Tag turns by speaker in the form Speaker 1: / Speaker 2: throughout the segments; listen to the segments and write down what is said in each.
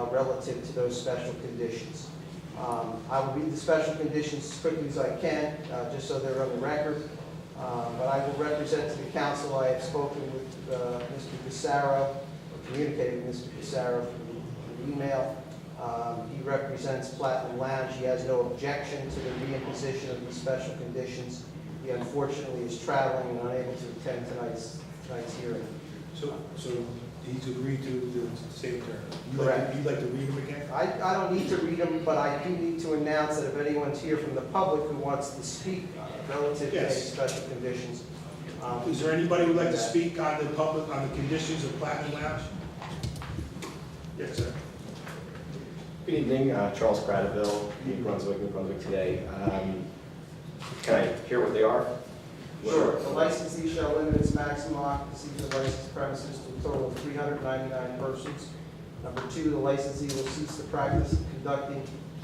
Speaker 1: uh, relative to those special conditions. Um, I will read the special conditions as quickly as I can, uh, just so they're on the record. Uh, But I will represent to the council, I have spoken with uh, Mr. Pissarro, or communicated with Mr. Pissarro through through email. Um, He represents Platinum Lounge, he has no objection to the reimposition of these special conditions. He unfortunately is traveling and unable to attend tonight's, tonight's hearing.
Speaker 2: So, so he's agreed to the same term? You'd like to-
Speaker 1: Correct.
Speaker 2: You'd like to read them again?
Speaker 1: I, I don't need to read them, but I do need to announce that if anyone's here from the public who wants to speak uh, relative to any
Speaker 2: Yes.
Speaker 1: special conditions. um,
Speaker 2: Is there anybody who'd like to speak on the public, on the conditions of Platinum Lounge? Yes, sir.
Speaker 3: Good evening, uh, Charles Cradaville, New Brunswick, New Brunswick today. Um, Can I hear what they are?
Speaker 1: Sure, the licensee shall limit its maximum occupancy to the licensed premises to a total of three hundred ninety-nine persons. Number two, the licensee will cease the practice of conducting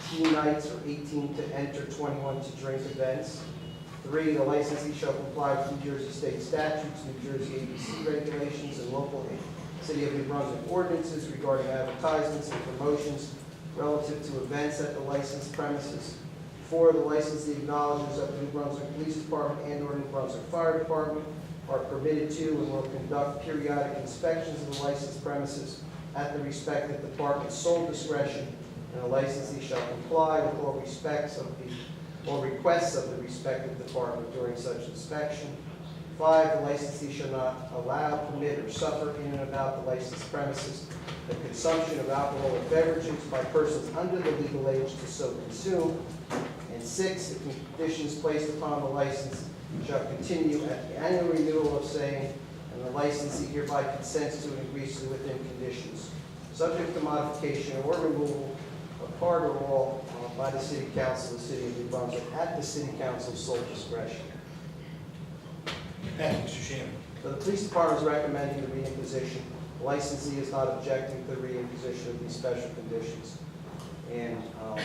Speaker 1: teen nights or eighteen to enter, twenty-one to drink events. Three, the licensee shall comply with New Jersey state statutes, New Jersey ABC regulations, and local city of New Brunswick ordinances regarding advertisements and promotions relative to events at the licensed premises. Four, the licensee acknowledges that the New Brunswick Police Department and or New Brunswick Fire Department are permitted to and will conduct periodic inspections of the licensed premises at the respective department's sole discretion, and the licensee shall comply with all respects of the, all requests of the respective department during such inspection. Five, the licensee shall not allow, permit, or suffer in and about the licensed premises the consumption of alcoholic beverages by persons under the legal age to so consume, and six, the conditions placed upon the license shall continue at the annual renewal of same, and the licensee hereby consents to and agrees to within conditions, subject to modification or removal of part or all uh, by the city council of the city of New Brunswick at the city council's sole discretion.
Speaker 2: Thank you, Mr. Shannon.
Speaker 1: So the police department is recommending the reimposition. Licensee is not objecting to the reimposition of these special conditions. And um,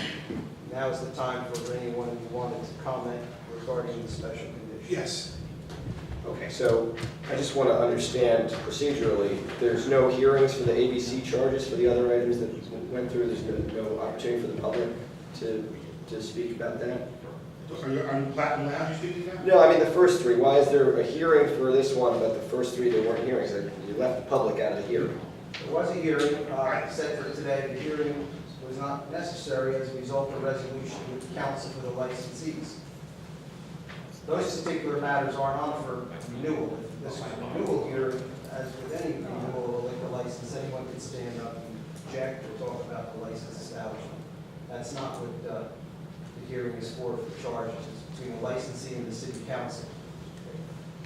Speaker 1: now is the time for anyone who wanted to comment regarding the special conditions.
Speaker 2: Yes.
Speaker 3: Okay, so I just want to understand procedurally, there's no hearings for the ABC charges for the other items that went through? There's no no opportunity for the public to, to speak about that?
Speaker 2: Are you, are you Platinum Lounge speaking now?
Speaker 3: No, I mean, the first three, why is there a hearing for this one, but the first three, there weren't hearings? Like, You left the public out of the hearing.
Speaker 1: There was a hearing uh, set for today. The hearing was not necessary as a result of resolution with the council for the licensees. Those particular matters aren't on for renewal. If This is a renewal here, as with any renewal of a liquor license, anyone can stand up and object or talk about the license establishment. That's not what uh, the hearing is for, for charges It's between the licensee and the city council.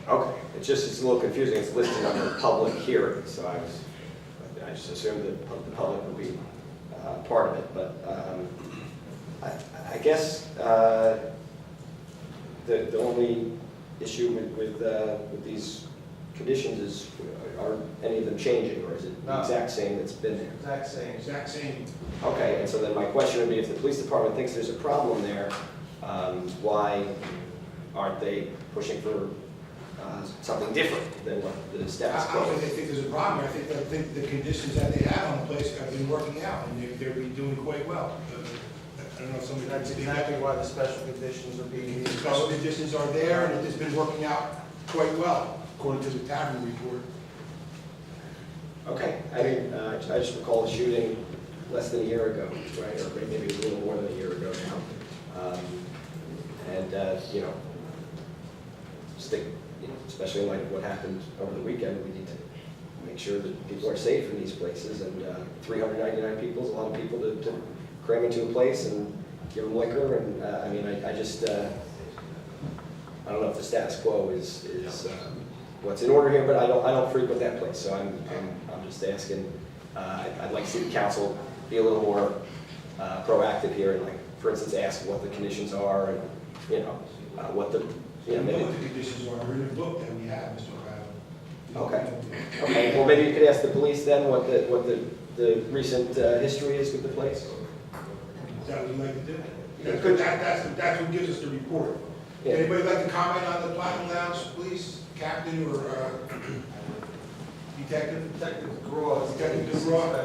Speaker 3: Okay, it's just, it's a little confusing, it's listed under public hearing, so I was, I just assumed that pub- the public would be uh, part of it, but um, I I guess uh, the the only issue with, with uh, with these conditions is, are any of them changing, or is it
Speaker 1: No.
Speaker 3: the exact same that's been there?
Speaker 1: Exact same.
Speaker 2: Exact same.
Speaker 3: Okay, and so then my question would be, if the police department thinks there's a problem there, um, why aren't they pushing for uh, something different than what the
Speaker 2: I
Speaker 3: status
Speaker 2: I
Speaker 3: quo?
Speaker 2: don't think they
Speaker 3: is?
Speaker 2: think there's a problem. I think, I think the conditions that they have on the place have been working out, and they're, they're doing quite well. I don't know if somebody can
Speaker 1: That's
Speaker 2: speak that.
Speaker 1: exactly why the special conditions are being
Speaker 2: The
Speaker 1: used.
Speaker 2: special conditions are there, and it's been working out quite well, according to the tavern report.
Speaker 3: Okay, I mean, uh, I just recall a shooting less than a year ago, right, or maybe it was a little more than a year ago now. Um, And, uh, you know, just think, you know, especially in light of what happened over the weekend, we need to make sure that people are safe in these places, and uh, 399 people is a lot of people to to cram into a place and give them liquor, and, uh, I mean, I I just, uh, I don't know if the status quo is, is um, what's in order here, but I don't, I don't frequent that place, so I'm, I'm, I'm just asking. Uh, I'd- I'd like city council be a little more uh, proactive here and like, for instance, ask what the conditions are and, you know, uh, what the,
Speaker 2: We
Speaker 3: you know,
Speaker 2: know
Speaker 3: maybe.
Speaker 2: what the conditions are, we're in the book that we have, Mr. O'Hara.
Speaker 3: Okay. Okay, well, maybe you could ask the police then what the, what the, the recent uh, history is with the place?
Speaker 2: Is that what you like to do?
Speaker 3: Yeah.
Speaker 2: That's good, that, that's, that's what gives us the report.
Speaker 3: Yeah.
Speaker 2: Anybody like to comment on the Platinum Lounge, please, captain or, uh, detective?
Speaker 1: Detective DeGraw is
Speaker 2: Detective
Speaker 1: getting this
Speaker 2: DeGraw.
Speaker 1: inspection.